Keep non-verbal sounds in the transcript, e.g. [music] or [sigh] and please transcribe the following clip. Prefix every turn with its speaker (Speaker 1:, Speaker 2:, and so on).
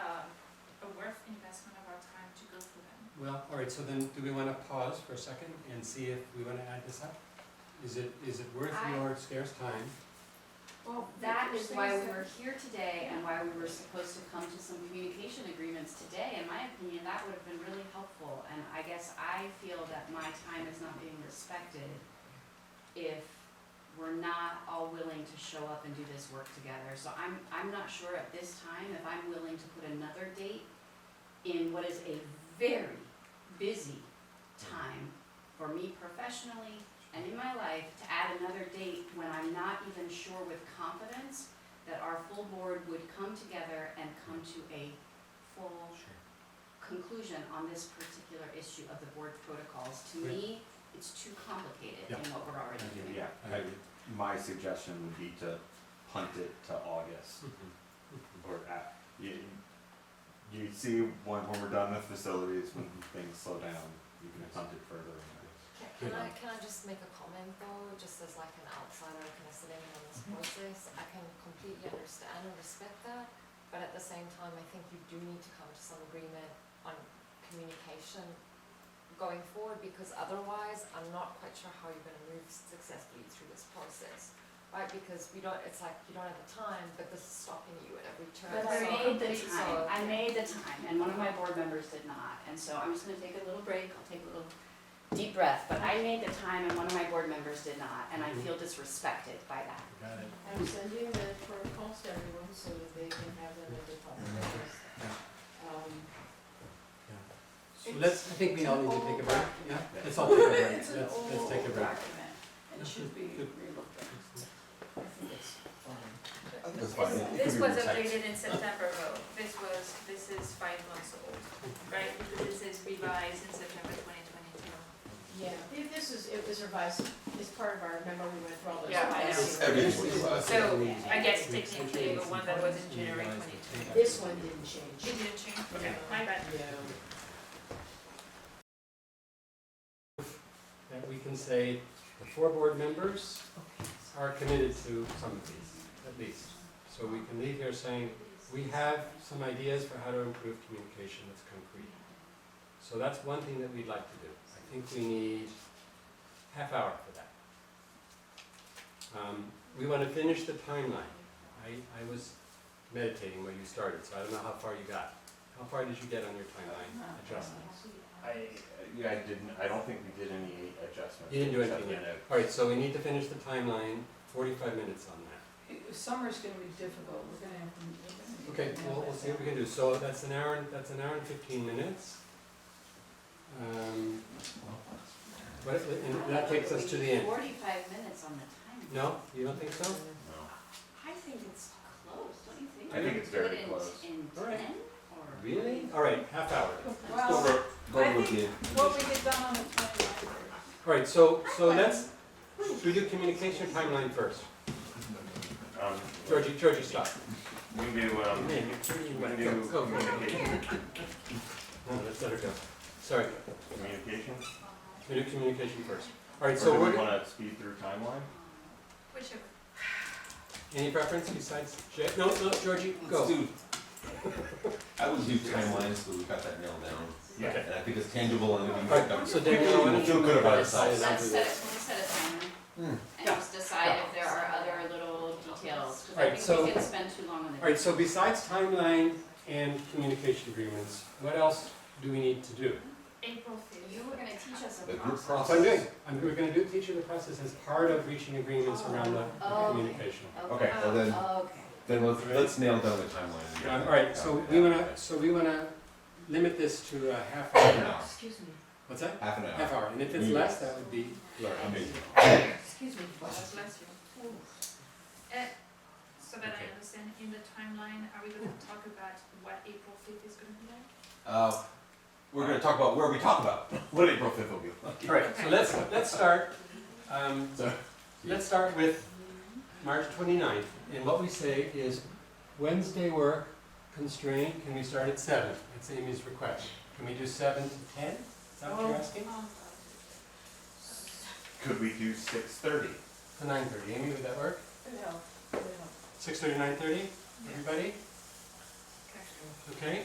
Speaker 1: Well, all right, so then do we wanna pause for a second and see if we wanna add this up? Is it, is it worth
Speaker 2: I-
Speaker 1: your scarce time?
Speaker 2: Well,
Speaker 3: That is why we
Speaker 2: were.
Speaker 3: were here today and why we were supposed to come to some communication agreements today. In my opinion, that would have been really helpful, and I guess I feel that my time is not being respected if we're not all willing to show up and do this work together. So I'm, I'm not sure at this time if I'm willing to put another date in what is a very busy time for me professionally and in my life to add another date when I'm not even sure with confidence that our full board would come together and come to a full conclusion on this particular issue of the board protocols. To me, it's too complicated in what we're already doing.
Speaker 4: Yeah, I, my suggestion would be to punt it to August or at, you, you see when, when we're done with facilities, when things slow down, you can punt it further.
Speaker 5: Ca- Can I, can I just make a comment though, just as like an outsider considering on this process, I can completely understand and respect that, but at the same time, I think you do need to come to some agreement on communication going forward, because otherwise, I'm not quite sure how you're gonna move successfully through this process, right, because we don't, it's like, you don't have the time, but this is stopping you at every turn,
Speaker 3: But
Speaker 5: so.
Speaker 3: I made the
Speaker 5: so-
Speaker 3: time, I made the time, and one of my board members did not, and so I'm just gonna take a little break, I'll take a little deep breath, but I made the time and one of my board members did not, and I
Speaker 4: Mm-hmm.
Speaker 3: feel disrespected by that.
Speaker 1: Got it.
Speaker 2: I'm sending the protocols to everyone so that they can have them in the public notice. Um,
Speaker 1: So let's, I think we all need to
Speaker 2: It's an
Speaker 1: take
Speaker 2: old
Speaker 1: a break, yeah?
Speaker 2: document.
Speaker 1: Let's all take a break,
Speaker 2: It's
Speaker 1: let's,
Speaker 2: an
Speaker 1: let's
Speaker 2: old
Speaker 1: take a break.
Speaker 2: document and should be relooked at. I think it's fine.
Speaker 4: That's fine. It could
Speaker 6: This
Speaker 4: be
Speaker 6: was
Speaker 4: retyped.
Speaker 6: updated in September though, this was, this is five months old, right? This is revised in September twenty twenty-two.
Speaker 2: Yeah, thi- this is, it was revised, it's part of our, remember we went through all those.
Speaker 6: Yeah, I know.
Speaker 2: policies.
Speaker 4: It's everything
Speaker 2: This
Speaker 4: was
Speaker 2: is-
Speaker 4: revised.
Speaker 6: So, I guess
Speaker 1: We- we-
Speaker 6: technically the one that was in January
Speaker 1: we- we-
Speaker 6: 22.
Speaker 2: This one didn't
Speaker 6: It
Speaker 2: change.
Speaker 6: didn't change, okay, my bad.
Speaker 2: Yeah.
Speaker 1: That we can say the four board members are committed to some of these, at least. So we can leave here saying, we have some ideas for how to improve communication that's concrete. So that's one thing that we'd like to do. I think we need half hour for that. Um, we want to finish the timeline. I, I was meditating where you started, so I don't know how far you got. How far did you get on your
Speaker 6: Uh,
Speaker 1: timeline adjustments?
Speaker 4: I, yeah, I didn't, I don't think we did any adjustments.
Speaker 1: You didn't do
Speaker 4: except
Speaker 1: anything yet.
Speaker 4: for
Speaker 1: All right, so we need to finish the timeline, forty-five minutes on that.
Speaker 2: Summer's gonna be difficult, we're gonna have to. we're gonna
Speaker 1: Okay,
Speaker 2: have to
Speaker 1: well,
Speaker 2: nail
Speaker 1: we'll
Speaker 2: that
Speaker 1: see what we
Speaker 2: down.
Speaker 1: can do. So that's an hour, and that's an hour and fifteen minutes. Um, But, it- and that takes us to the end.
Speaker 3: Forty-five minutes on the time.
Speaker 1: No, you don't think so?
Speaker 4: No,
Speaker 3: I think it's close, don't you think?
Speaker 4: I think it's very
Speaker 3: Do it in-
Speaker 4: close.
Speaker 3: In
Speaker 1: All right.
Speaker 3: ten or?
Speaker 1: Really? All right, half hour.
Speaker 2: Well,
Speaker 4: Go,
Speaker 2: I
Speaker 4: go with
Speaker 2: think-
Speaker 4: you.
Speaker 2: what we get done on the twenty-ninth.
Speaker 1: All right, so, so let's, should we do communication timeline first?
Speaker 4: Um,
Speaker 1: Georgie, Georgie, stop.
Speaker 4: we can do, um,
Speaker 1: Man, you're turning
Speaker 4: we
Speaker 1: your
Speaker 4: can
Speaker 1: back.
Speaker 4: do
Speaker 1: Go, go, go.
Speaker 4: communication,
Speaker 1: No, let's let her go. Sorry,
Speaker 4: communication.
Speaker 1: we do communication first. All
Speaker 4: Or
Speaker 1: right, so
Speaker 4: do we
Speaker 1: we're,
Speaker 4: wanna speed through timeline?
Speaker 6: Whichever.
Speaker 1: any preference besides, Ja- no, no, Georgie, go.
Speaker 7: Dude, I would do timelines, so we got that nailed down.
Speaker 4: Yeah.
Speaker 7: And I think it's tangible and we can get
Speaker 1: Alright,
Speaker 7: done.
Speaker 1: so David, I wanted to.
Speaker 7: Feel good about
Speaker 3: Let's,
Speaker 7: ourselves.
Speaker 3: let's set, it- let's set a
Speaker 1: Hmm.
Speaker 3: timer and just decide if there are other little details,
Speaker 1: All right,
Speaker 3: because I think
Speaker 1: so-
Speaker 3: we can spend too long on the.
Speaker 1: Alright, so besides timeline and communication agreements, what else do we need to do?
Speaker 6: April fifth.
Speaker 3: You were gonna teach us a
Speaker 7: The group
Speaker 3: process.
Speaker 1: That's what I'm doing, I'm, we're gonna do teach you the process as part of reaching agreements around the the
Speaker 3: Oh, okay.
Speaker 1: communication.
Speaker 7: Okay, well then,
Speaker 3: Okay.
Speaker 7: then let's, let's nail down the timeline. and get that
Speaker 1: Alright, Um, so
Speaker 7: done.
Speaker 1: we wanna, so we wanna limit this to a half hour,
Speaker 7: Now,
Speaker 2: Excuse me,
Speaker 1: what's that?
Speaker 7: Half an hour.
Speaker 1: Half hour, and if it's less, that would be blurry.
Speaker 7: Amazing.
Speaker 2: excuse me.
Speaker 6: God bless you. Uh, so that I understand, in the timeline, are we gonna talk about what April fifth is gonna be like?
Speaker 7: Uh, we're gonna talk about where we talk about, [laughs] what April fifth will be like.
Speaker 1: Alright, so let's, let's start, um,
Speaker 7: So-
Speaker 1: let's start with March 29th. And what we say is Wednesday work constrained, can we start at seven? That's Amy's request. Can we do seven to ten? Is that
Speaker 6: Oh.
Speaker 1: what you're asking?
Speaker 4: Could we do six thirty?
Speaker 1: To nine thirty, Amy, would that work?
Speaker 2: No, no.
Speaker 1: Six thirty, nine thirty, everybody?
Speaker 6: Okay.
Speaker 1: Okay?